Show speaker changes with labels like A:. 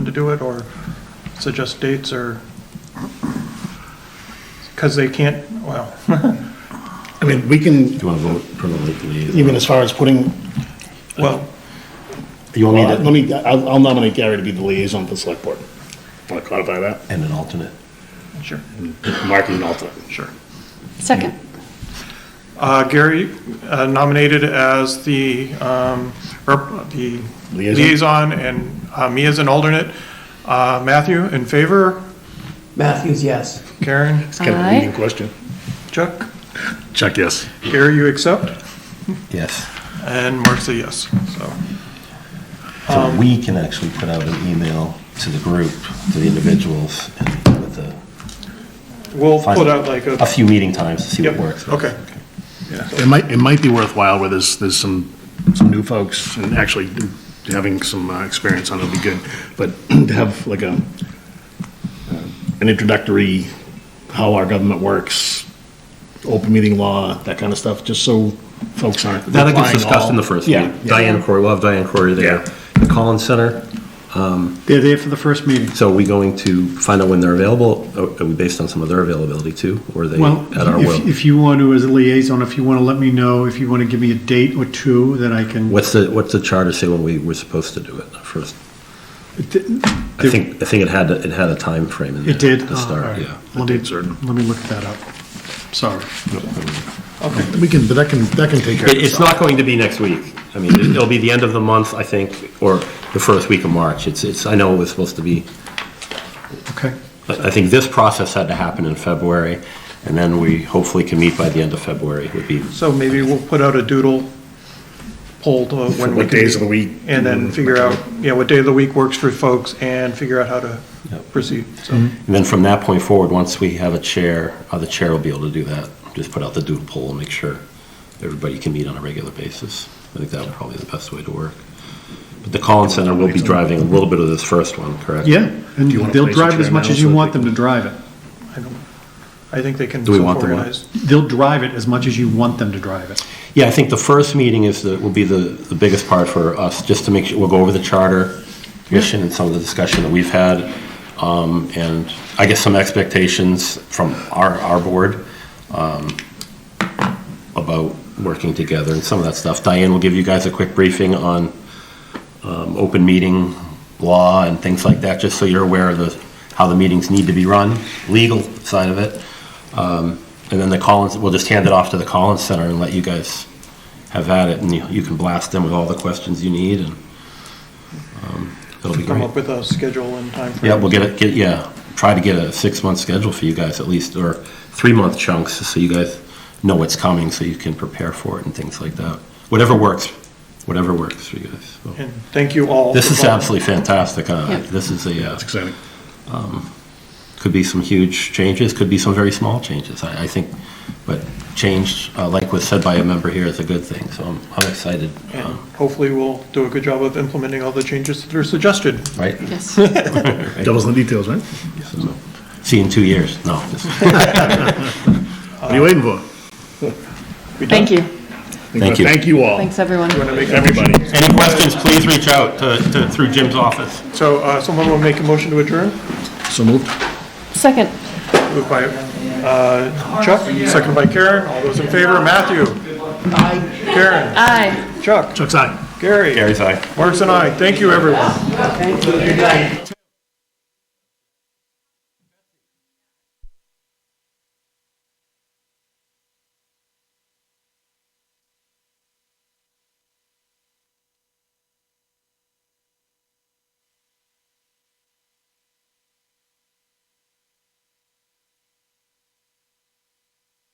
A: to do it, or suggest dates, or, because they can't, well,
B: I mean, we can,
C: Do you want to vote permanently?
B: even as far as putting,
A: well,
C: You want me
B: let
C: to,
B: me, I'll I'll nominate Gary to be the liaison for the select board. Want to clarify that?
C: and an alternate?
A: sure,
B: Marking an alternate.
A: sure.
D: Second.
A: Uh, Gary uh, nominated as the, um, rep- the
B: Liaison.
A: liaison, and uh, me as an alternate. Uh, Matthew, in favor?
E: Matthews, yes.
A: Karen?
B: It's kind of a
D: Aye.
B: leading question.
A: Chuck?
B: Chuck, yes.
A: Gary, you accept?
C: Yes.
A: And Mark's a yes, so.
F: Um,
C: So we can actually put out an email to the group, to the individuals, and with the.
A: We'll put out like a.
C: A few meeting times to see what
A: Yep,
C: works.
A: okay.
B: It might, it might be worthwhile where there's, there's some, some new folks and actually having some uh, experience on it would be good. But to have like a, uh, an introductory, how our government works, open meeting law, that kind of stuff, just so folks aren't.
C: That gets
B: applying
C: discussed in
B: all-
C: the first
B: Yeah,
C: meeting.
B: yeah.
C: Diane Corey, we'll have Diane Corey there.
B: Yeah.
C: The Collins Center,
F: They're there for the first meeting.
C: so are we going to find out when they're available? Are are we based on some of their availability too? Or are they
F: Well,
C: at our
F: if-
C: will?
F: if you want to, as a liaison, if you want to let me know, if you want to give me a date or two, then I can.
C: What's the, what's the charter say when we were supposed to do it first? I
F: There-
C: think, I think it had, a- it had a time frame in there.
F: It did?
C: To
F: Oh,
C: start,
F: alright.
C: yeah.
F: Let me, let me look that up. Sorry.
B: We can, but that can, that can take care of
C: It- It's not going to be next week. I mean, it- it'll be the end of the month, I think, or the first week of March. It's, it's, I know it was supposed to be,
F: Okay.
C: I I think this process had to happen in February, and then we hopefully can meet by the end of February would be,
A: So maybe we'll put out a doodle poll to when we
B: What
A: can.
B: days of the week?
A: And then figure out, yeah, what day of the week works for folks and figure out how to
C: Yep.
A: proceed, so.
C: and then from that point forward, once we have a chair, uh, the chair will be able to do that. Just put out the doodle poll and make sure everybody can meet on a regular basis. I think that would probably be the best way to work. But the Collins Center will be driving a little bit of this first one, correct?
F: Yeah, and
B: you wanna
F: they'll
B: place a
F: drive
B: chair
F: as much
B: now
F: as you
B: so
F: want
B: they
F: them to drive it.
A: I don't, I think they can
C: Do we want the what?
A: self-organize.
F: They'll drive it as much as you want them to drive it.
C: Yeah, I think the first meeting is the, will be the, the biggest part for us, just to make sure, we'll go over the charter mission and some of the discussion that we've had, um, and I guess some expectations from our, our board, um, about working together and some of that stuff. Diane will give you guys a quick briefing on, um, open meeting law and things like that, just so you're aware of the, how the meetings need to be run, legal side of it. Um, And then the Collins, we'll just hand it off to the Collins Center and let you guys have at it, and you, you can blast them with all the questions you need, and, um, it'll be
A: Come
C: great.
A: up with a schedule and timeframe.
C: Yeah, we'll get it, get, yeah, try to get a six-month schedule for you guys at least, or three-month chunks, so you guys know what's coming, so you can prepare for it and things like that. Whatever works, whatever works for you guys. so.
A: And thank you all.
C: This
A: for
C: is
A: calling.
C: absolutely fantastic, uh,
D: Yeah.
C: this is a, uh,
B: That's exciting.
C: could be some huge changes, could be some very small changes, I, I think. But change, uh, like was said by a member here, is a good thing, so I'm, I'm excited.
A: And
C: um,
A: hopefully we'll do a good job of implementing all the changes that are suggested.
C: Right?
D: Yes.
B: Doubles in the details, right?
C: So, See you in two years. No. just-
B: What are
A: Uh,
B: you waiting for?
A: We done?
D: Thank you.
C: Thank you.
B: Thank you all.
D: Thanks, everyone.
A: You want to make a
B: Everybody.
C: Any questions, please reach out to, to, through Jim's office.
A: So uh, someone will make a motion to adjourn,
B: So moved.
D: Second.
A: moved by uh, Chuck, second by Karen, all those in favor, Matthew? Karen?
D: Aye.
A: Chuck?
B: Chuck's eye.
A: Gary?
C: Gary's eye.
A: Marks and I, thank you, everyone.
E: Thank you, good night.